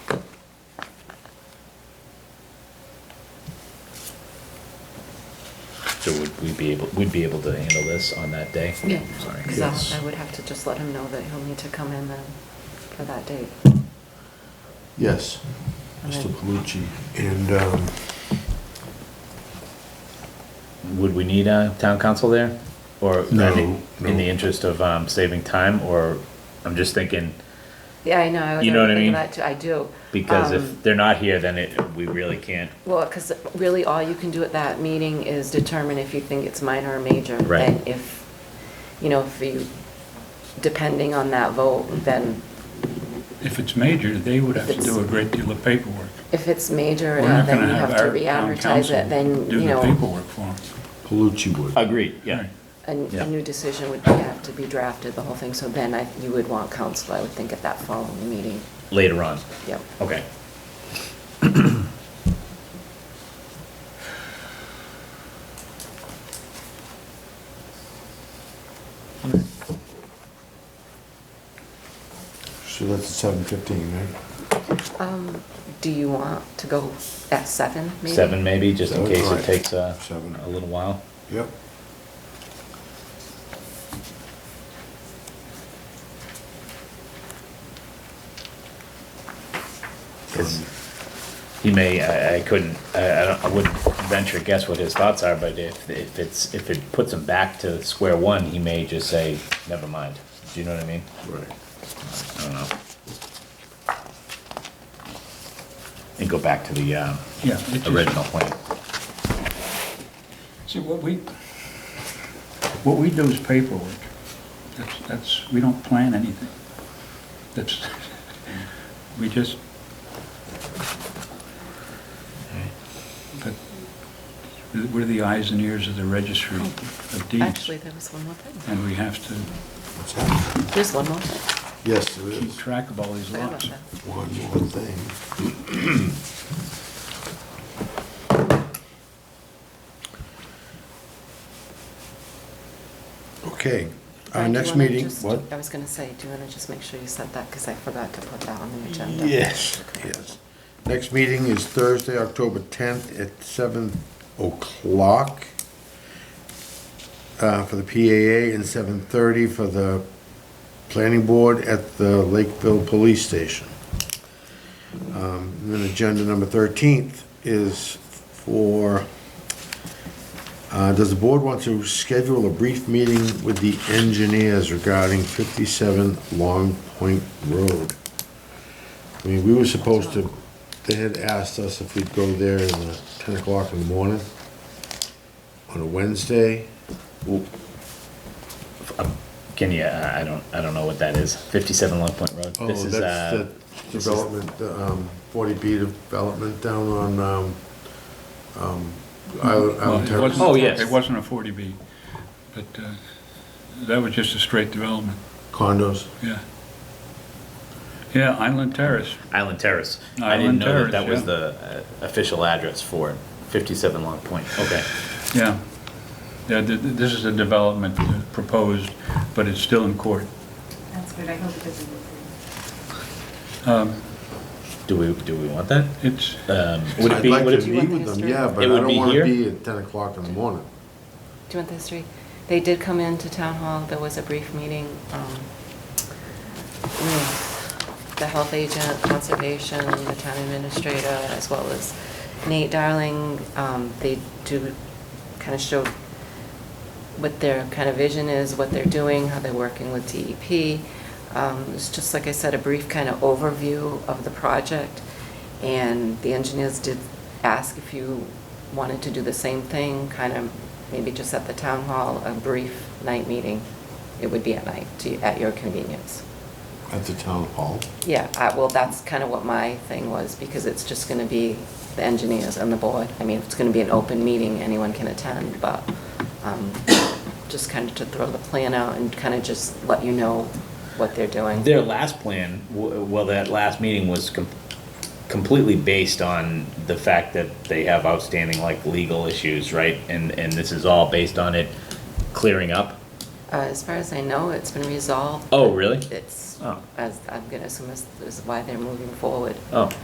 So would we be able, we'd be able to handle this on that day? Yeah, Sorry. because I would have to just let him know that he'll need to come in then for that date. Yes, Mr. Okay. Palucci. And, um, Would we need a town council there? Or, I No, mean, in the no. interest of um, saving time, or, I'm just thinking, Yeah, I know, I was You know what I thinking mean? that too, I do. because Um, if they're not here, then it, we really can't. Well, because really all you can do at that meeting is determine if you think it's minor or major. Right. And if, you know, if you, depending on that vote, then If it's major, they would have to It's- do a great deal of paperwork. if it's major, We're not then going you have to our re-advertise town it, then, council you Do the know, paperwork for them. Palucci would. Agreed, yeah. a, Yeah. a new decision would have to be drafted, the whole thing. So then I, you would want council, I would think, at that following meeting. Later on, Yep. okay. So that's at seven fifteen, right? Um, do you want to go at seven, maybe? Seven maybe, just in Seven, case it alright. takes uh, Seven. a little while. Yep. Because he may, I, I couldn't, I, I don't, I wouldn't venture guess what his thoughts are, but if, if it's, if it puts him back to square one, he may just say, never mind. Do you know what I mean? Right. I don't know. And go back to the, um, Yeah. it just- original plan. See, what we, what we do is paperwork. That's, that's, we don't plan anything. That's, we just. But we're the eyes and ears of the registry of deeds, Actually, there was one more thing. and we have to What's that? There's one more thing. Yes, there keep is. track of all these Sorry about lots. that. One more thing. Okay, Brad, do our you next wanna meeting, just- what? I was going to say, do you want to just make sure you said that, because I forgot to put that on the agenda? Yes, yes. Next meeting is Thursday, October 10th at 7 o'clock uh, for the PAA and 7:30 for the planning board at the Lakeville Police Station. Um, and Then agenda number 13th is for, uh, does the board want to schedule a brief meeting with the engineers regarding 57 Long Point Road? I mean, we were supposed to, they had asked us if we'd go there in the ten o'clock in the morning on a Wednesday. Can you, uh, I I don't, I don't know what that is. Fifty-seven Long Point Road. Oh, This is, that's uh, the Development, the, um, forty B development down on, um, um, Island, Well, Island it Terrace. wasn't- Oh, yes. It wasn't a 40B, but uh, that was just a straight development, Condos. yeah. Yeah, Island Terrace, Island Terrace. I didn't Island know that Terrace, that was yeah. the uh, official address for it. fifty-seven Long Point, okay. yeah. Yeah, th- th- This is a development uh, proposed, but it's still in court. That's good, I hope it doesn't go through. Um, Do we, do we want that? It's, Um, Would it be, would I'd like it to Do you want the meet with them, history? yeah, but It I would don't be wanna here? be at ten o'clock in the morning. Do you want the history? They did come into town hall, there was a brief meeting um, with the health agent, conservation, the town administrator, as well as Nate Darling. Um, They do kind of show what their kind of vision is, what they're doing, how they're working with DEP. Um, It's just, like I said, a brief kind of overview of the project. And the engineers did ask if you wanted to do the same thing, kind of maybe just at the town hall, a brief night meeting. It would be at night, to- at your convenience. At the town hall. Yeah, I- well, that's kind of what my thing was, because it's just going to be the engineers and the board. I mean, it's going to be an open meeting, anyone can attend, but um, just kind of to throw the plan out and kind of just let you know what they're doing. Their last plan, w- well, that last meeting was com- completely based on the fact that they have outstanding, like, legal issues, right? And, and this is all based on it clearing up? Uh, As far as I know, it's been resolved. Oh, really? It's, Oh. as, I'm going to assume this is why they're moving forward. Oh.